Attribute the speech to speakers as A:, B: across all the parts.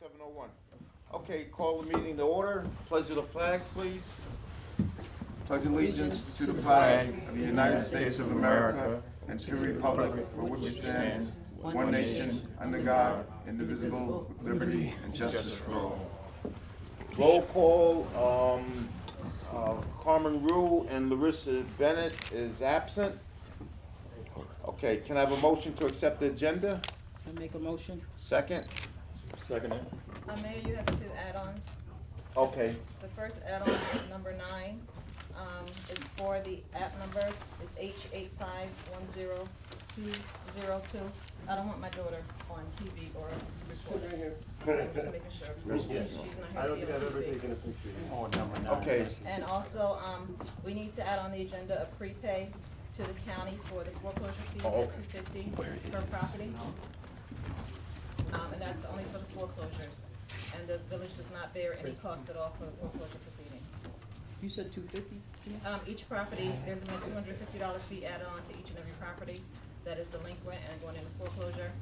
A: seven oh one. Okay, call the meeting to order. Pledge of the flag, please.
B: Pledge allegiance to the flag of the United States of America and to the republic for which it stands, one nation, under God, indivisible, with liberty and justice for all.
A: Roll call, um, uh, Carmen Rue and Larissa Bennett is absent. Okay, can I have a motion to accept the agenda?
C: I make a motion.
A: Second?
D: Second it.
E: Uh, Mayor, you have two add-ons.
A: Okay,
E: The first add-on is number nine. Um, it's for the app number, it's H eight five one zero two zero two. I don't want my daughter on TV or recorded. I'm just making sure, she's not here to be on TV.
A: okay,
E: And also, um, we need to add on the agenda a prepay to the county for the foreclosure fees
A: Oh,
E: at
A: okay.
E: two fifty per property. Um, and that's only for the foreclosures, and the village does not bear any cost at all for the foreclosure proceedings.
C: You said two fifty?
E: Um, each property, there's a two hundred fifty dollar fee added on to each and every property that is delinquent and going into foreclosure.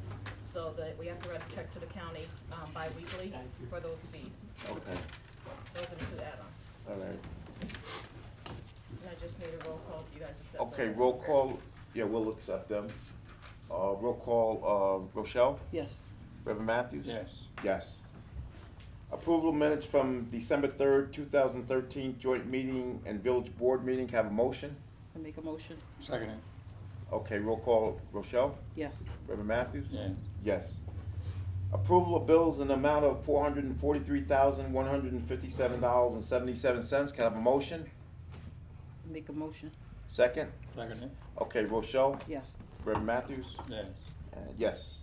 E: So that we have to write a check to the county, um, bi-weekly for those fees.
A: okay,
E: Those are the two add-ons.
A: all right.
E: And I just made a roll call, if you guys accept
A: Okay,
E: those.
A: roll call, yeah, we'll accept them. Uh, roll call, uh, Rochelle?
C: Yes.
A: Reverend Matthews? Yes. Yes. Approval minutes from December third, two thousand thirteen, joint meeting and village board meeting, have a motion?
C: I make a motion.
D: Second it.
A: Okay, roll call, Rochelle?
C: Yes.
A: Reverend Matthews?
D: Yeah.
A: Yes. Approval of bills in the amount of four hundred and forty-three thousand, one hundred and fifty-seven dollars and seventy-seven cents, can I have a motion?
C: I make a motion.
A: Second?
D: Second it.
A: Okay, Rochelle?
C: Yes.
A: Reverend Matthews?
D: Yeah.
A: Uh, Yes.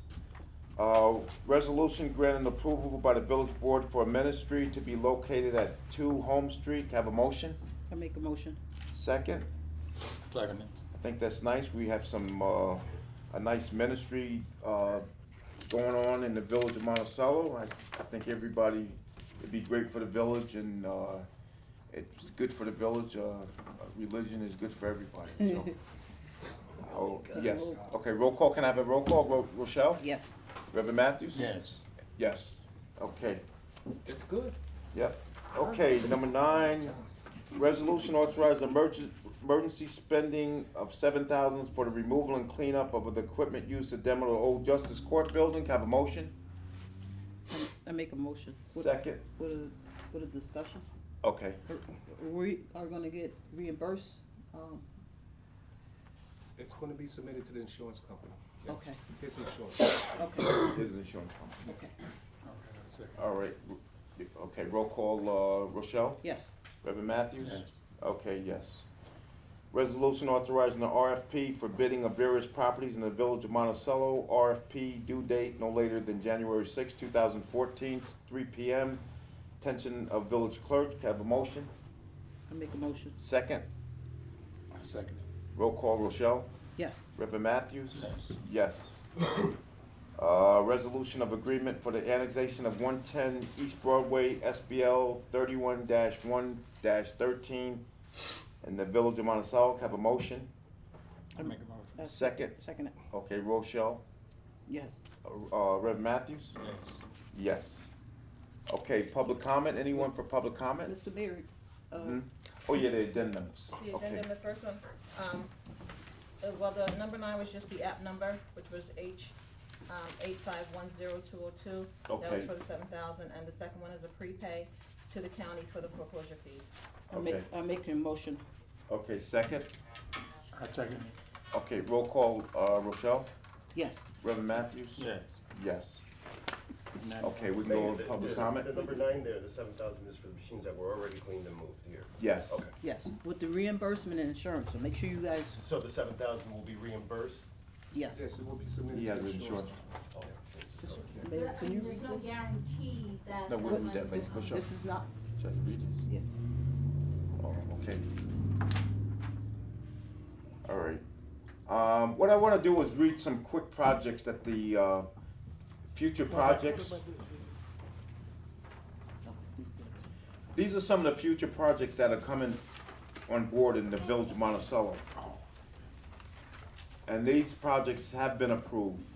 A: Uh, Resolution granting approval by the village board for a ministry to be located at two Home Street. Have a motion?
C: I make a motion.
A: Second?
D: Second it.
A: I think that's nice. We have some, uh, a nice ministry uh, going on in the village of Monticello. I, I think everybody, it'd be great for the village and uh, it's good for the village. Uh, Religion is good for everybody, so. Oh, yes. Okay, roll call. Can I have a roll call? Ro- Rochelle?
C: Yes.
A: Reverend Matthews?
D: Yes.
A: Yes, okay. It's good. Yep, okay, number nine, resolution authorize emergen- emergency spending of seven thousand for the removal and cleanup of the equipment used to demo the old Justice Court building, Can I have a motion?
C: I- I make a motion. With-
A: Second,
C: With a, with a discussion.
A: okay,
C: We are gonna get reimbursed, um,
F: It's gonna be submitted to the insurance company. Yes.
C: okay,
F: His insurance.
C: okay,
A: here's the insurance company.
C: okay.
A: All right, r- okay, roll call, uh, Rochelle,
C: Yes.
A: Reverend Matthews?
D: Yes.
A: Okay, yes. Resolution authorizing the RFP for bidding of various properties in the village of Monticello. RFP due date no later than January sixth, two thousand fourteen, three P M. Attention of village clerk, Can I have a motion.
C: I make a motion.
A: Second,
D: Second it.
A: roll call Rochelle.
C: Yes.
A: Reverend Matthews?
D: Yes.
A: Yes. Uh, resolution of agreement for the annexation of one ten East Broadway, SBL thirty-one one thirteen in the village of Monticello. Can I have a motion?
D: I make a motion.
C: Uh,
A: Second,
C: Second it.
A: okay, Rochelle,
C: Yes.
A: uh, Rev Matthews?
D: Yes.
A: Yes. Okay, public comment, anyone for public comment?
C: Mr. Mayor, uh,
A: Hmm? Oh, yeah, the addendums,
E: The
A: okay.
E: agenda, the first one, um, uh, well, the number nine was just the app number, which was H, um, eight five one zero two oh two. That was
A: Okay.
E: for the seven thousand, and the second one is a prepay to the county for the foreclosure fees.
C: I make,
A: Okay.
C: I make a motion.
A: Okay, second,
D: I second it.
A: okay, roll call, uh, Rochelle,
C: Yes.
A: Reverend Matthews?
D: Yes.
A: Yes,
D: And then-
A: okay, we can go on
G: The-
A: public
G: the-
A: comment?
G: The number nine there, the seven thousand is for the machines that were already cleaned and moved here.
A: Yes,
G: Okay.
C: Yes. With the reimbursement and insurance, so make sure you guys,
G: So the seven thousand will be reimbursed?
C: yes.
F: Yes, it will be submitted
A: he
F: to
A: has
F: the
A: insurance.
G: Okay.
C: Mr.
H: But,
C: Mayor,
H: I
C: can you
H: mean, there's
C: read
H: no
C: this?
H: guarantee that.
A: No,
H: the
A: we'll do
H: money
A: that
H: will
A: later,
H: come.
A: Rochelle.
C: This is not,
A: Just read it.
C: Yeah.
A: Oh, okay. All right. Um, what I wanna do is read some quick projects that the, uh, future projects. These are some of the future projects that are coming on board in the Village of Monticello. And these projects have been approved.